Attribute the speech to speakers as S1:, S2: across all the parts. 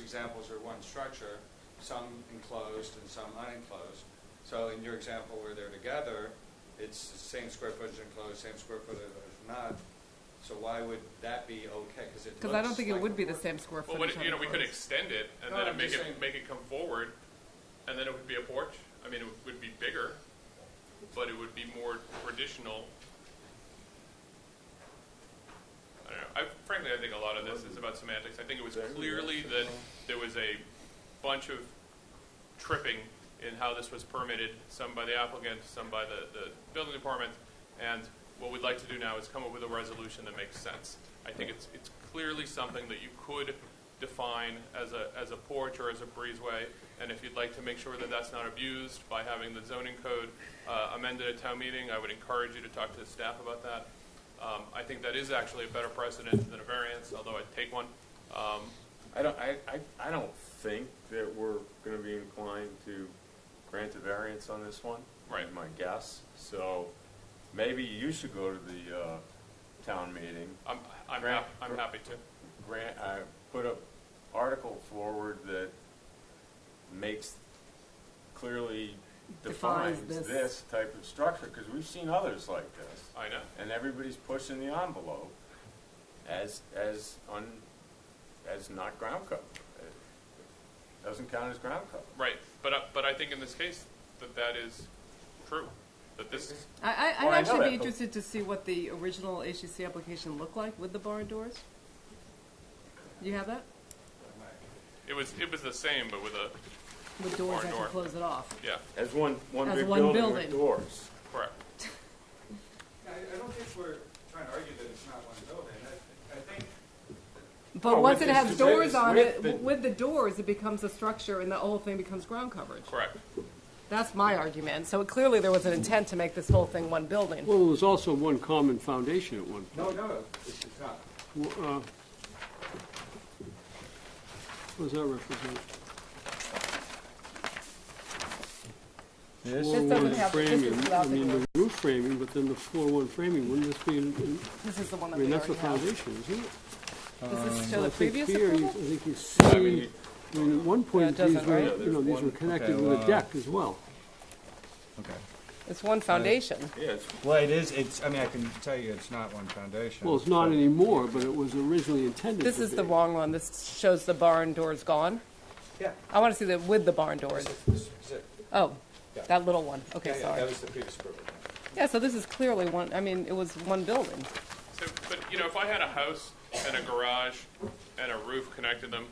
S1: examples are one structure, some enclosed and some unenclosed. So in your example where they're together, it's the same square footage enclosed, same square footage not. So why would that be okay? Because it
S2: Because I don't
S1: looks
S2: think it
S1: like
S2: would
S1: a
S2: be the
S1: word.
S2: same square
S3: Well,
S2: footage.
S3: what,
S2: on
S3: you know,
S2: the
S3: we could
S2: porch.
S3: extend it and
S1: No,
S3: then
S1: I'm
S3: it make
S1: just
S3: it
S1: saying-
S3: make it come forward, and then it would be a porch. I mean, it would, would be bigger, but it would be more traditional. I don't know. I, frankly, I think a lot of this is about semantics. I think it was clearly that there was a bunch of tripping in how this was permitted, some by the applicant, some by the, the building department, and what we'd like to do now is come up with a resolution that makes sense. I think it's, it's clearly something that you could define as a, as a porch or as a breezeway, and if you'd like to make sure that that's not abused by having the zoning code uh, amended at town meeting, I would encourage you to talk to the staff about that. Um, I think that is actually a better precedent than a variance, although I'd take one. Um,
S4: I don't, I, I, I don't think that we're gonna be inclined to grant a variance on this one.
S3: Right.
S4: My guess, so maybe you should go to the, uh, town meeting,
S3: I'm, I'm
S4: Grant-
S3: hap- I'm happy to.
S4: grant, I put a article forward that makes, clearly
S2: Defines
S4: defines
S2: this.
S4: this type of structure, cause we've seen others like this.
S3: I know.
S4: and everybody's pushing the envelope as, as un, as not ground cover. It Doesn't count as ground cover.
S3: Right, but, I- but I think in this case, that that is true, that this,
S2: I, I,
S4: Well, I
S2: I'd
S4: know
S2: actually be
S4: that, but-
S2: interested to see what the original HCC application looked like with the barn doors. You have that?
S3: it was, it was the same, but with a,
S2: With doors,
S3: Barn
S2: I
S3: door.
S2: can close it off.
S3: yeah,
S4: As one, one
S2: As
S4: big
S2: one
S4: building
S2: building.
S4: with doors.
S3: correct.
S1: I, I don't think we're trying to argue that it's not one building. I, I think
S2: But
S4: No,
S2: once
S4: Oh, with
S2: it
S4: this-
S2: has
S4: with-
S2: doors on
S4: with
S2: it,
S4: the-
S2: w- with the doors, it becomes a structure, and the whole thing becomes ground coverage.
S3: Correct.
S2: That's my argument. So clearly, there was an intent to make this whole thing one building.
S5: Well, there's also one common foundation at one
S1: No, no, this is not.
S5: point. Wh- uh, What does that represent?
S4: This-
S5: Floor
S2: This doesn't have-
S5: one
S2: this is
S5: framing,
S2: without
S5: I
S2: the
S5: mean,
S2: door.
S5: the roof framing, but then the floor one framing, wouldn't this be, in- in-
S2: This is the one
S5: I
S2: that
S5: mean,
S2: we
S5: that's
S2: already
S5: the
S2: have.
S5: foundation, isn't it?
S2: Does
S4: Uh,
S2: this
S5: So
S2: show
S5: I
S2: the
S5: think
S2: previous
S5: here you-
S2: approval?
S5: I think you
S4: I mean,
S5: see,
S4: you-
S5: I mean, at one
S2: Yeah,
S5: point,
S2: it
S5: these
S2: doesn't,
S5: were,
S2: right?
S5: you know, these
S6: one-
S5: were connected
S6: okay,
S5: with a
S6: well,
S5: deck as well.
S6: Okay.
S2: It's one foundation.
S4: Yeah, it's,
S6: Well, it is, it's, I mean, I can tell you it's not one foundation.
S5: Well, it's not anymore, but it was originally intended
S2: This
S5: to
S2: is the
S5: be.
S2: wrong one. This shows the barn doors gone.
S6: Yeah.
S2: I want to see that with the barn doors.
S6: This is it.
S2: Oh,
S6: Yeah.
S2: that little one. Okay,
S6: Yeah, yeah,
S2: sorry.
S6: That was the previous approval.
S2: Yeah, so this is clearly one, I mean, it was one building.
S3: So, but, you know, if I had a house and a garage and a roof connected them,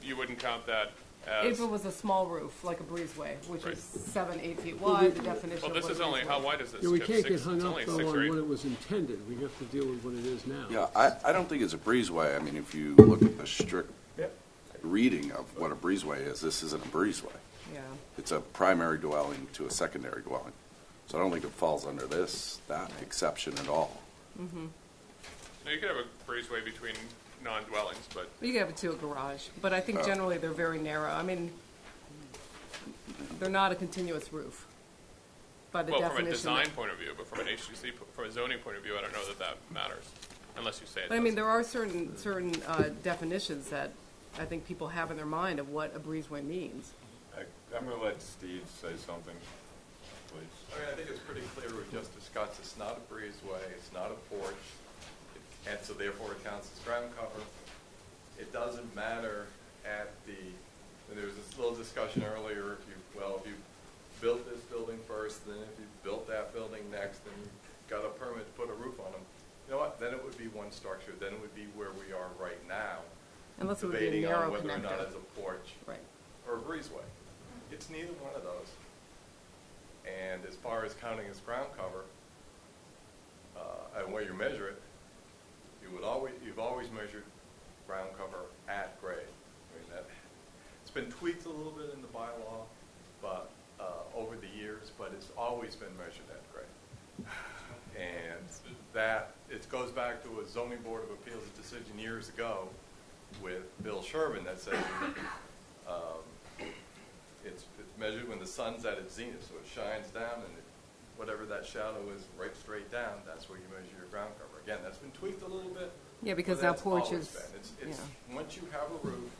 S3: you wouldn't count that as,
S2: If it was a small roof, like a breezeway, which
S3: Right.
S2: is seven, eight feet
S5: Well,
S2: wide,
S5: we-
S2: the definition
S3: well,
S2: of
S3: this
S2: what
S3: is
S2: a
S3: only,
S2: breezeway
S3: how
S2: is.
S3: wide is this?
S5: Yeah, we
S3: Kip?
S5: can't
S3: Six-
S5: get hung
S3: it's
S5: up
S3: only
S5: though
S3: six or
S5: on
S3: eight.
S5: what it was intended, we have to deal with what it is now.
S7: Yeah, I, I don't think it's a breezeway. I mean, if you look at the strict
S4: yeah,
S7: reading of what a breezeway is, this isn't a breezeway.
S2: Yeah.
S7: It's a primary dwelling to a secondary dwelling. So I don't think it falls under this, that exception at all.
S3: Now, you could have a breezeway between non-dwellings, but
S2: You could have it to a garage, but I think
S7: Oh.
S2: generally they're very narrow. I mean, they're not a continuous roof by the
S3: Well, from
S2: definition.
S3: a
S2: that-
S3: design point of view, but from an HGC, po- from a zoning point of view, I don't know that that matters, unless you say it
S2: But I mean,
S3: does.
S2: there are certain, certain uh, definitions that I think people have in their mind of what a breezeway means.
S4: I, I'm gonna let Steve say something, please.
S8: I mean, I think it's pretty clear with Justice Scott's, it's not a breezeway, it's not a porch, it- and so therefore it counts as ground cover. It doesn't matter at the, and there was this little discussion earlier, if you, well, if you built this building first, then if you built that building next, and you got a permit to put a roof on them, you know what, then it would be one structure, then it would be where we are right now,
S2: Unless it would be a
S8: debating on
S2: narrow
S8: whether or not
S2: connector.
S8: it's a porch
S2: Right.
S8: or a breezeway. It's neither one of those. And as far as counting as ground cover, uh, and where you measure it, you would always, you've always measured ground cover at grade. I mean, that, it's been tweaked a little bit in the bylaw, but, uh, over the years, but it's always been measured at grade. And that, it goes back to a zoning board of appeals decision years ago with Bill Sherman that said, um, it's, it's measured when the sun's at its zenith, so it shines down and it, whatever that shadow is right straight down, that's where you measure your ground cover. Again, that's been tweaked a little bit.
S2: Yeah, because
S8: but
S2: now
S8: that's always
S2: porches-
S8: been. It's, it's, once you have a roof,